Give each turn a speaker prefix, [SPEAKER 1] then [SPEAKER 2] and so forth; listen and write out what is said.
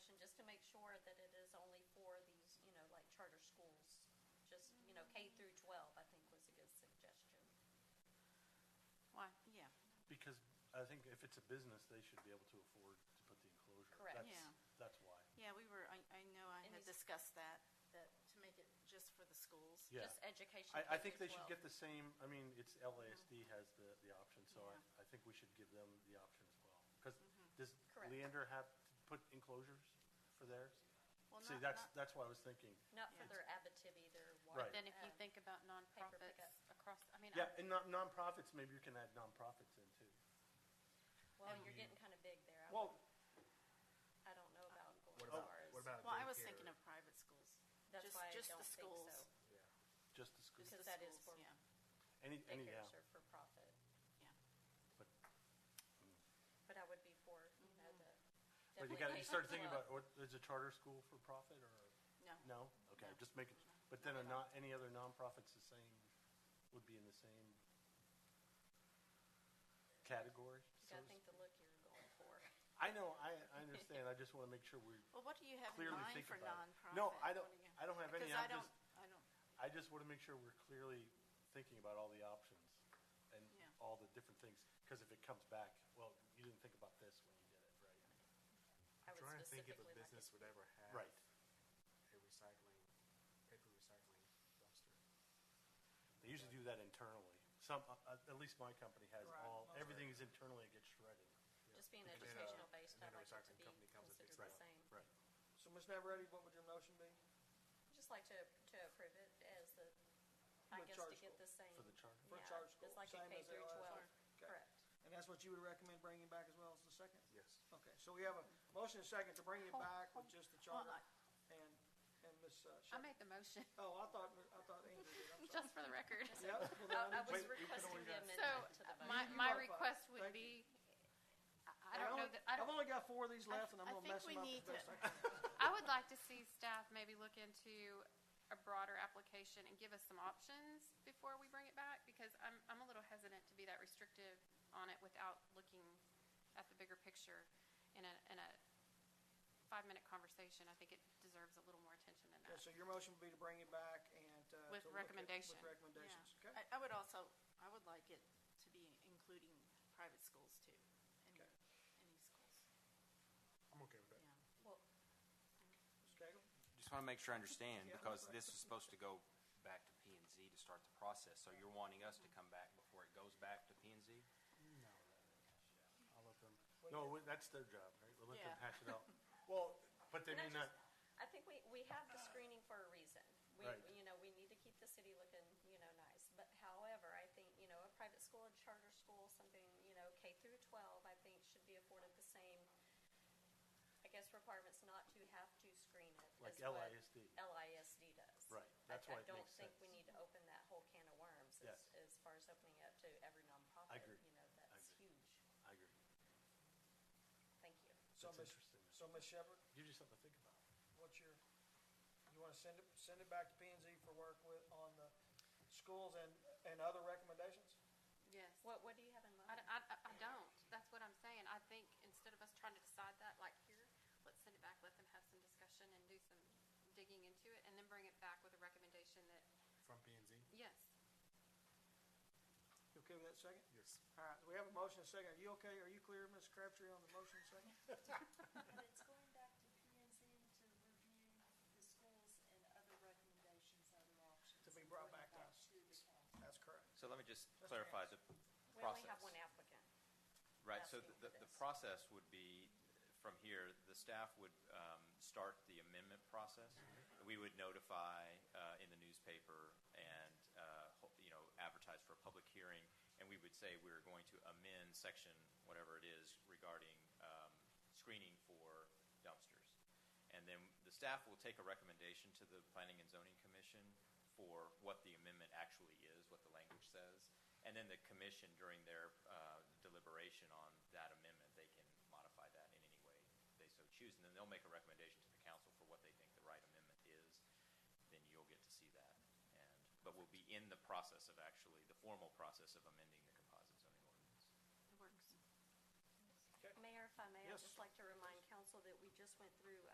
[SPEAKER 1] charter schools. Just, you know, K through twelve, I think was a good suggestion.
[SPEAKER 2] Why, yeah,
[SPEAKER 3] Because I think if it's a business, they should be able to afford to put the enclosure.
[SPEAKER 1] Correct.
[SPEAKER 3] That's-
[SPEAKER 2] Yeah.
[SPEAKER 3] That's why.
[SPEAKER 2] yeah, we were, I, I know I
[SPEAKER 1] It
[SPEAKER 2] had
[SPEAKER 1] needs-
[SPEAKER 2] discussed that, that, to make it just for the schools.
[SPEAKER 3] Yeah.
[SPEAKER 1] Just education.
[SPEAKER 3] I, I
[SPEAKER 1] K
[SPEAKER 3] think
[SPEAKER 1] through
[SPEAKER 3] they should
[SPEAKER 1] 12.
[SPEAKER 3] get the same, I mean, it's LASD has the, the option, so
[SPEAKER 2] Mm-hmm. Yeah. Mm-hmm.
[SPEAKER 3] I, I think we should give them the option as well. Because does
[SPEAKER 1] Correct.
[SPEAKER 3] Leander have to put enclosures for theirs?
[SPEAKER 2] Well,
[SPEAKER 3] See,
[SPEAKER 2] not-
[SPEAKER 3] that's,
[SPEAKER 2] not-
[SPEAKER 3] that's why I was thinking,
[SPEAKER 1] Not for
[SPEAKER 2] Yeah.
[SPEAKER 1] their Abitibi, their.
[SPEAKER 3] Right.
[SPEAKER 4] Then if you
[SPEAKER 1] um,
[SPEAKER 4] think about
[SPEAKER 1] pickup.
[SPEAKER 4] nonprofits across, I mean,
[SPEAKER 3] yeah,
[SPEAKER 4] I-
[SPEAKER 3] and non nonprofits, maybe you can add nonprofits in too.
[SPEAKER 1] Well, you're getting kind of big there. I
[SPEAKER 3] Well, oh,
[SPEAKER 1] don't- I don't know about going
[SPEAKER 5] What
[SPEAKER 1] as
[SPEAKER 5] about,
[SPEAKER 1] far as.
[SPEAKER 5] Oh, what about
[SPEAKER 2] Well, I was
[SPEAKER 5] daycare?
[SPEAKER 2] thinking of private schools.
[SPEAKER 1] That's
[SPEAKER 2] Just-
[SPEAKER 1] why I
[SPEAKER 2] just the
[SPEAKER 1] don't think
[SPEAKER 2] schools.
[SPEAKER 1] so.
[SPEAKER 5] Yeah.
[SPEAKER 3] just the
[SPEAKER 2] Just the
[SPEAKER 3] school,
[SPEAKER 1] Because that is for-
[SPEAKER 2] schools, Yeah,
[SPEAKER 3] any, any, yeah,
[SPEAKER 1] Daycares are for profit,
[SPEAKER 2] yeah.
[SPEAKER 3] but,
[SPEAKER 1] but I would be for, you know, the.
[SPEAKER 2] Mm-hmm.
[SPEAKER 3] but
[SPEAKER 1] definitely
[SPEAKER 3] you gotta,
[SPEAKER 1] K
[SPEAKER 3] you start
[SPEAKER 1] through
[SPEAKER 3] thinking
[SPEAKER 1] 12.
[SPEAKER 3] about, or, is a charter school for profit or?
[SPEAKER 2] No.
[SPEAKER 3] No? Okay,
[SPEAKER 2] No.
[SPEAKER 3] just making, but then a not, any other nonprofits the same, would be in the same category?
[SPEAKER 1] You
[SPEAKER 3] so
[SPEAKER 1] gotta
[SPEAKER 3] to
[SPEAKER 1] think the look you're going for.
[SPEAKER 3] speak? I know, I, I understand, I just want to make sure we
[SPEAKER 2] Well, what do you have in
[SPEAKER 3] clearly
[SPEAKER 2] mind
[SPEAKER 3] think
[SPEAKER 2] for
[SPEAKER 3] about
[SPEAKER 2] nonprofit?
[SPEAKER 3] it. No, I
[SPEAKER 2] What
[SPEAKER 3] don't,
[SPEAKER 2] do you-
[SPEAKER 3] I don't have any,
[SPEAKER 2] Because I
[SPEAKER 3] I'm just,
[SPEAKER 2] don't, I don't,
[SPEAKER 3] I just want to make sure we're clearly thinking about all the options and
[SPEAKER 2] Yeah.
[SPEAKER 3] all the different things, because if it comes back, well, you didn't think about this when you did it, right?
[SPEAKER 1] I
[SPEAKER 5] I'm
[SPEAKER 1] would
[SPEAKER 5] trying to think if
[SPEAKER 1] specifically like it.
[SPEAKER 5] a business would ever have
[SPEAKER 3] Right.
[SPEAKER 5] a recycling, paper recycling dumpster.
[SPEAKER 3] They usually do that internally. Some, uh, uh, at least my company has
[SPEAKER 6] Right.
[SPEAKER 3] all, everything is internally, it gets shredded.
[SPEAKER 1] Just being
[SPEAKER 5] And then, uh,
[SPEAKER 1] educational based,
[SPEAKER 5] and
[SPEAKER 1] I'd
[SPEAKER 5] then a
[SPEAKER 1] like it to
[SPEAKER 5] recycling
[SPEAKER 1] be
[SPEAKER 5] company comes and
[SPEAKER 1] considered the
[SPEAKER 5] picks it up.
[SPEAKER 1] same.
[SPEAKER 3] Right.
[SPEAKER 6] So, Ms. Navarette, what would your motion be?
[SPEAKER 1] Just like to, to approve it as the,
[SPEAKER 6] For
[SPEAKER 1] I
[SPEAKER 6] the
[SPEAKER 1] guess
[SPEAKER 6] charter
[SPEAKER 1] to get the same.
[SPEAKER 3] For the charter?
[SPEAKER 6] For
[SPEAKER 1] yeah,
[SPEAKER 6] charter school,
[SPEAKER 1] It's like a
[SPEAKER 6] same
[SPEAKER 1] K
[SPEAKER 6] as they
[SPEAKER 1] through
[SPEAKER 6] are.
[SPEAKER 1] twelve,
[SPEAKER 6] Okay.
[SPEAKER 1] correct.
[SPEAKER 6] And that's what you would recommend bringing back as well as the second?
[SPEAKER 5] Yes.
[SPEAKER 6] Okay, so we have a motion and second to bring it back with just the charter and, and Ms.
[SPEAKER 4] I
[SPEAKER 6] uh, Shepherd.
[SPEAKER 4] made the motion,
[SPEAKER 6] Oh, I thought, I thought Andrew did, I'm sorry.
[SPEAKER 4] just for the record.
[SPEAKER 6] Yep, well, then
[SPEAKER 1] I I
[SPEAKER 6] I need
[SPEAKER 1] was
[SPEAKER 6] to-
[SPEAKER 1] requesting the
[SPEAKER 4] So uh,
[SPEAKER 1] amendment to the motion.
[SPEAKER 4] my, my
[SPEAKER 6] modify it.
[SPEAKER 4] request would
[SPEAKER 6] Thank
[SPEAKER 4] be, I I don't know
[SPEAKER 6] only-
[SPEAKER 4] that, I
[SPEAKER 6] I've
[SPEAKER 4] don't,
[SPEAKER 6] only got four of these left and
[SPEAKER 4] I
[SPEAKER 6] I'm gonna
[SPEAKER 4] think
[SPEAKER 6] mess
[SPEAKER 4] we
[SPEAKER 6] them up as
[SPEAKER 4] need
[SPEAKER 6] best
[SPEAKER 4] to-
[SPEAKER 6] I can.
[SPEAKER 4] I would like to see staff maybe look into a broader application and give us some options before we bring it back, because I'm, I'm a little hesitant to be that restrictive on it without looking at the bigger picture in a, in a five-minute conversation. I think it deserves a little more attention than
[SPEAKER 6] Yeah,
[SPEAKER 4] that.
[SPEAKER 6] so your motion would be to bring it back and, uh.
[SPEAKER 4] With
[SPEAKER 6] to look at-
[SPEAKER 4] recommendation.
[SPEAKER 6] With recommendations,
[SPEAKER 2] yeah.
[SPEAKER 6] okay?
[SPEAKER 2] I, I would also, I would like it to be including private schools too, any,
[SPEAKER 6] Okay.
[SPEAKER 2] any schools,
[SPEAKER 5] I'm okay with that.
[SPEAKER 2] yeah.
[SPEAKER 1] Well,
[SPEAKER 6] Ms. Cagle?
[SPEAKER 7] Just want to make sure I understand,
[SPEAKER 6] Yeah.
[SPEAKER 7] because this is supposed to go back to P and Z to start the process, so you're wanting us to come back before it goes back to P and Z?
[SPEAKER 3] I'll let them, no, we- that's their job, right? We'll let
[SPEAKER 2] Yeah.
[SPEAKER 3] them hash it out. Well, but they
[SPEAKER 1] Can I
[SPEAKER 3] may not,
[SPEAKER 1] just- I think we, we have the screening for a reason. We,
[SPEAKER 3] Right.
[SPEAKER 1] you know, we need to keep the city looking, you know, nice. But however, I think, you know, a private school, a charter school, something, you know, K through twelve, I think should be afforded the same, I guess, requirements not to have to screen it.
[SPEAKER 3] Like
[SPEAKER 1] is what
[SPEAKER 3] LISD.
[SPEAKER 1] LISD does.
[SPEAKER 3] Right.
[SPEAKER 1] I-
[SPEAKER 3] That's why it
[SPEAKER 1] I don't
[SPEAKER 3] makes
[SPEAKER 1] think we
[SPEAKER 3] sense.
[SPEAKER 1] need to open that whole can of worms as,
[SPEAKER 3] Yes.
[SPEAKER 1] as far as opening up to every nonprofit.
[SPEAKER 3] agree.
[SPEAKER 1] You know,
[SPEAKER 3] I
[SPEAKER 1] that's
[SPEAKER 3] agree.
[SPEAKER 1] huge.
[SPEAKER 3] I agree.
[SPEAKER 1] Thank you.
[SPEAKER 6] So,
[SPEAKER 3] That's
[SPEAKER 6] Ms.
[SPEAKER 3] interesting.
[SPEAKER 6] So, Ms. Shepherd,
[SPEAKER 3] Gives you something to think about.
[SPEAKER 6] what's your, you wanna send it, send it back to P and Z for work with, on the schools and, and other recommendations?
[SPEAKER 4] Yes.
[SPEAKER 1] What, what do you have in mind?
[SPEAKER 4] I, I, I- I don't. That's what I'm saying. I think instead of us trying to decide that, like here, let's send it back, let them have some discussion and do some digging into it, and then bring it back with a recommendation that,
[SPEAKER 5] From P and Z?
[SPEAKER 4] yes,
[SPEAKER 6] You okay with that second?
[SPEAKER 5] Yes.
[SPEAKER 6] All right, we have a motion and second. Are you okay? Are you clear, Ms. Crabtree, on the motion and second?
[SPEAKER 8] But it's going back to P and Z to review the schools and other recommendations, other options.
[SPEAKER 6] To be brought back to
[SPEAKER 8] Bring it
[SPEAKER 6] us.
[SPEAKER 8] To the council.
[SPEAKER 6] That's correct.
[SPEAKER 9] So let me just
[SPEAKER 6] Just
[SPEAKER 9] clarify
[SPEAKER 6] answer.
[SPEAKER 9] the
[SPEAKER 1] We only
[SPEAKER 9] process.
[SPEAKER 1] have one applicant.
[SPEAKER 9] Right, so
[SPEAKER 1] asking
[SPEAKER 9] the,
[SPEAKER 1] for
[SPEAKER 9] the
[SPEAKER 1] this.
[SPEAKER 9] process would be, from here, the staff would um, start the amendment process.
[SPEAKER 1] Mm-hmm.
[SPEAKER 9] We would notify uh, in the newspaper and, uh, ho- you know, advertise for a public hearing, and we would say we're going to amend section, whatever it is, regarding um, screening for dumpsters. And then the staff will take a recommendation to the Planning and Zoning Commission for what the amendment actually is, what the language says. And then the commission during their uh, deliberation on that amendment, they can modify that in any way they so choose. And then they'll make a recommendation to the council for what they think the right amendment is. Then you'll get to see that. And, but we'll be in the process of actually, the formal process of amending the composite zoning ordinance.
[SPEAKER 2] It works.
[SPEAKER 1] Mayor, if I may, I'd
[SPEAKER 3] Yes.
[SPEAKER 1] just like to remind council that we just went through